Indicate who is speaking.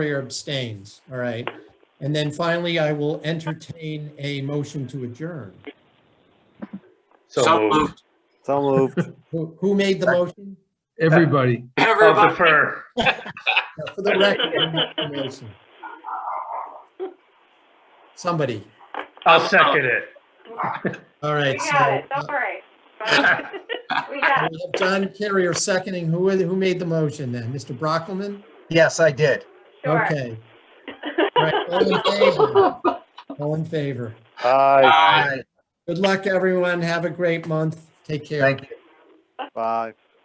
Speaker 1: Moyer abstains, all right. And then finally, I will entertain a motion to adjourn.
Speaker 2: So moved.
Speaker 3: So moved.
Speaker 1: Who, who made the motion?
Speaker 4: Everybody.
Speaker 2: Everybody.
Speaker 1: For the record, I'm not the motion. Somebody,
Speaker 5: I'll second it.
Speaker 1: all right.
Speaker 6: We
Speaker 1: so,
Speaker 6: got it,
Speaker 1: uh,
Speaker 6: don't worry. We got it.
Speaker 1: we have John Carrier seconding. Who, who made the motion then? Mr. Brockelman?
Speaker 7: Yes, I did.
Speaker 6: Sure.
Speaker 1: Okay. All right, all in favor? All in favor.
Speaker 3: Bye.
Speaker 2: Aye.
Speaker 7: Bye.
Speaker 1: Good luck, everyone. Have a great month. Take care.
Speaker 7: Thank you.
Speaker 3: Bye.